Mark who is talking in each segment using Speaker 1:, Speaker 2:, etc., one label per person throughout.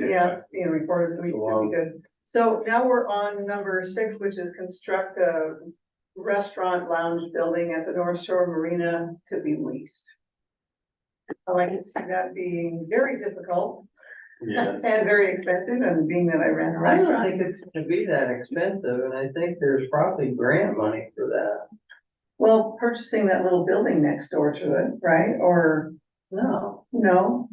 Speaker 1: yeah, it's being recorded, so we should be good. So now we're on number six, which is construct a restaurant lounge building at the North Shore Marina to be leased. Oh, I can see that being very difficult
Speaker 2: Yeah,
Speaker 1: and very expensive, and being that I ran a
Speaker 3: I don't
Speaker 1: restaurant.
Speaker 3: think it's gonna be that expensive, and I think there's probably grant money for that.
Speaker 1: Well, purchasing that little building next door to it, right, or,
Speaker 3: No,
Speaker 1: no,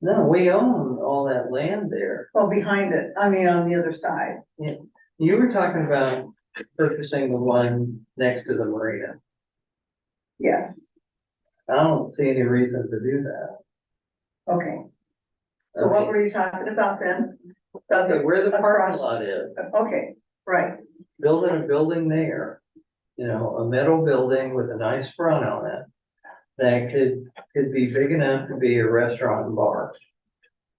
Speaker 3: no, we own all that land there.
Speaker 1: well, behind it, I mean, on the other side.
Speaker 3: You were talking about purchasing the one next to the marina.
Speaker 1: Yes,
Speaker 3: I don't see any reason to do that.
Speaker 1: okay. So what were you talking about then? About
Speaker 3: Okay,
Speaker 1: the-
Speaker 3: where the parking
Speaker 1: Across.
Speaker 3: lot is,
Speaker 1: Okay, right.
Speaker 3: building a building there, you know, a metal building with a nice front on it. That could, could be big enough to be a restaurant and bar.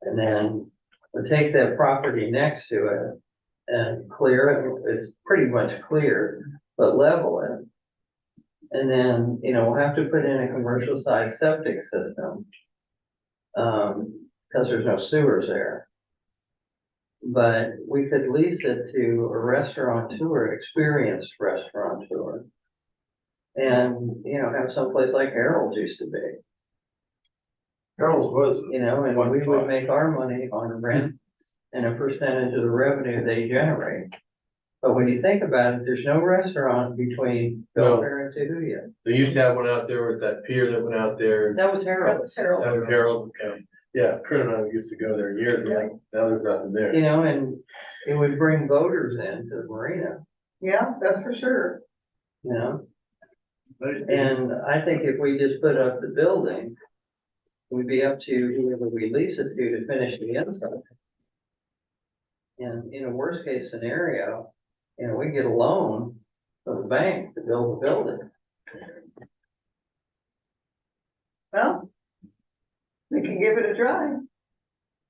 Speaker 3: And then we'll take that property next to it and clear it, it's pretty much clear, but level it. And then, you know, we'll have to put in a commercial sized septic system. Um, cause there's no sewers there. But we could lease it to a restaurateur, experienced restaurateur. And, you know, have someplace like Harold's used to be,
Speaker 2: Harold's was,
Speaker 3: you know, and we would make our money on rent and a percentage of the revenue they generate. But when you think about it, there's no restaurant between
Speaker 2: No.
Speaker 3: Belfair and Tahuya.
Speaker 2: they used to have one out there with that pier that went out there.
Speaker 3: That was
Speaker 1: That
Speaker 3: Harold's.
Speaker 1: was Harold.
Speaker 2: That was Harold, um, yeah, Kurt and I used to go there years ago, now there's nothing there.
Speaker 3: You know, and it would bring voters in to the marina,
Speaker 1: Yeah, that's for sure.
Speaker 3: you know? And I think if we just put up the building, we'd be up to whoever we lease it to to finish the inside. And in a worst case scenario, you know, we get a loan from the bank to build the building.
Speaker 1: Well, we can give it a try.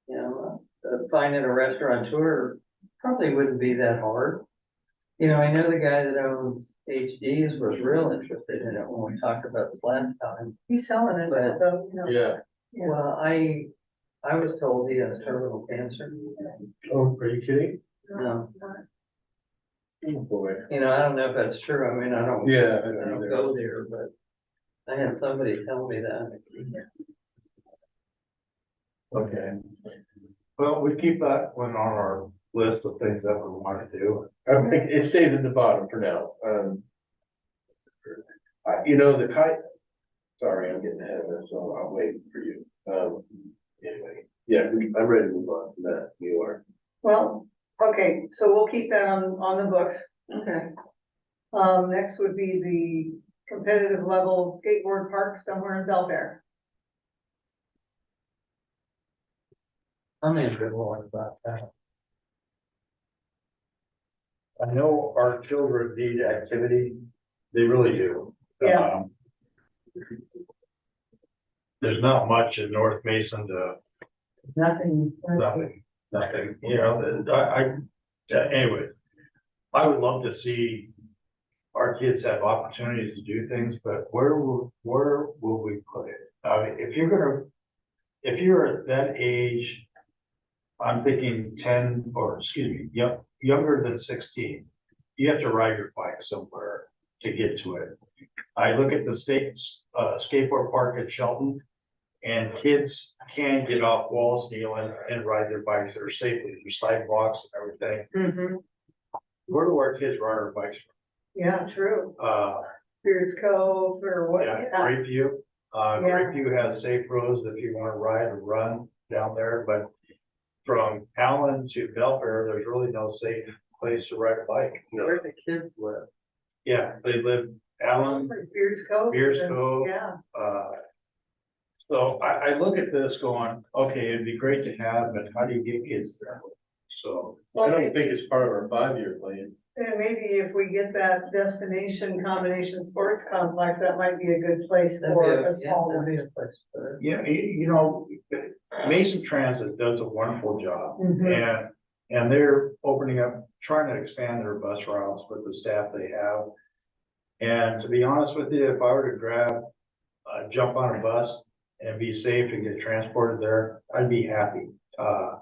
Speaker 3: You know, uh, finding a restaurateur probably wouldn't be that hard. You know, I know the guy that owns HD's was real interested in it when we talked about it last time.
Speaker 1: He's selling it,
Speaker 3: But-
Speaker 1: so, you know.
Speaker 2: Yeah,
Speaker 1: Yeah.
Speaker 3: Well, I, I was told he has terminal cancer.
Speaker 2: oh, are you kidding?
Speaker 3: No.
Speaker 2: Oh, boy.
Speaker 3: You know, I don't know if that's true. I mean, I don't.
Speaker 2: Yeah. I
Speaker 3: I
Speaker 2: don't
Speaker 3: don't
Speaker 2: either.
Speaker 3: go there, but I had somebody tell me that.
Speaker 4: Okay. Well, we keep that one on our list of things that we want to do.
Speaker 2: I think it stayed at the bottom for now, um. I, you know, the kite, sorry, I'm getting ahead of it, so I'll wait for you, um, anyway, yeah, we- I'm ready to move on from that, you are.
Speaker 1: Well, okay, so we'll keep that on, on the books.
Speaker 3: Okay.
Speaker 1: Um, next would be the competitive level skateboard park somewhere in Belfair.
Speaker 3: I'm in good one about that.
Speaker 4: I know our children need activity, they really do.
Speaker 1: Yeah.
Speaker 4: Um, There's not much in North Mason to
Speaker 3: Nothing.
Speaker 4: Nothing, nothing, you know, I, I, yeah, anyway. I would love to see our kids have opportunities to do things, but where will, where will we put it? I mean, if you're gonna, if you're at that age, I'm thinking ten, or excuse me, yo- younger than sixteen, you have to ride your bike somewhere to get to it. I look at the state, uh, skateboard park at Shelton, and kids can get off Wall Street and ride their bikes there safely, through sidewalks and everything.
Speaker 1: Mm-hmm.
Speaker 4: Where do our kids ride their bikes?
Speaker 1: Yeah, true.
Speaker 4: Uh,
Speaker 1: Beards Cove or what?
Speaker 4: yeah, Great View. Uh,
Speaker 1: Yeah.
Speaker 4: Great View has safe roads if you wanna ride or run down there, but from Allen to Belfair, there's really no safe place to ride a bike.
Speaker 3: Where the kids live.
Speaker 4: Yeah, they live Allen,
Speaker 1: Like Beards Cove.
Speaker 4: Beers
Speaker 1: and-
Speaker 4: Cove,
Speaker 1: Yeah,
Speaker 4: Uh, So I, I look at this going, okay, it'd be great to have, but how do you get kids there? So,
Speaker 2: I
Speaker 1: well,
Speaker 2: don't
Speaker 1: and
Speaker 2: think it's part of our five-year plan.
Speaker 1: maybe if we get that destination combination sports complex, that might be a good place
Speaker 3: That'd be
Speaker 1: for
Speaker 3: a,
Speaker 1: a
Speaker 3: yeah,
Speaker 1: small
Speaker 3: that'd
Speaker 1: one.
Speaker 3: be a place for it.
Speaker 4: you know, you, you know, Mason Transit does a wonderful job.
Speaker 1: Mhm.
Speaker 4: And, and they're opening up, trying to expand their bus routes with the staff they have. And to be honest with you, if I were to grab, uh, jump on a bus and be safe and get transported there, I'd be happy. Uh,